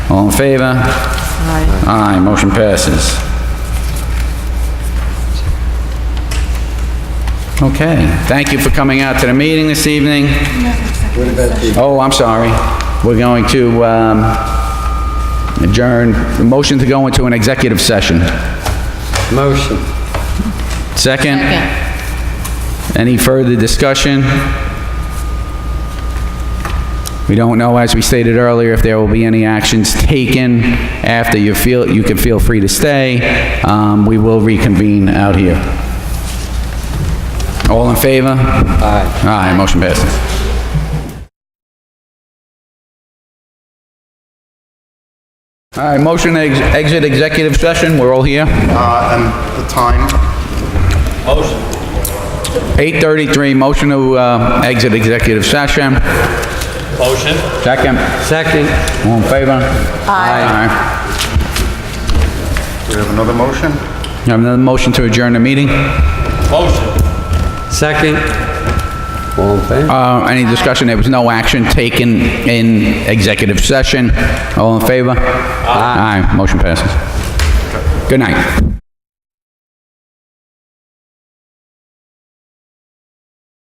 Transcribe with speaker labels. Speaker 1: All in favor?
Speaker 2: Aye.
Speaker 1: Aye, motion passes. Okay, thank you for coming out to the meeting this evening. Oh, I'm sorry. We're going to um, adjourn, motion to go into an executive session.
Speaker 3: Motion.
Speaker 1: Second?
Speaker 2: Second.
Speaker 1: Any further discussion? We don't know, as we stated earlier, if there will be any actions taken after you feel, you can feel free to stay. Um, We will reconvene out here. All in favor? Aye. Aye, motion passes. All right, motion to ex- exit executive session, we're all here.
Speaker 4: Uh, and the time,
Speaker 1: 8:33, motion to uh, exit executive session.
Speaker 5: Motion?
Speaker 1: Second. Second. All in favor? Aye.
Speaker 4: do we have another motion?
Speaker 1: You have another motion to adjourn the meeting?
Speaker 5: Motion.
Speaker 3: Second. All in favor?
Speaker 1: Uh, Any discussion? There was no action taken in executive session. All in favor? Aye. Motion passes. Good night.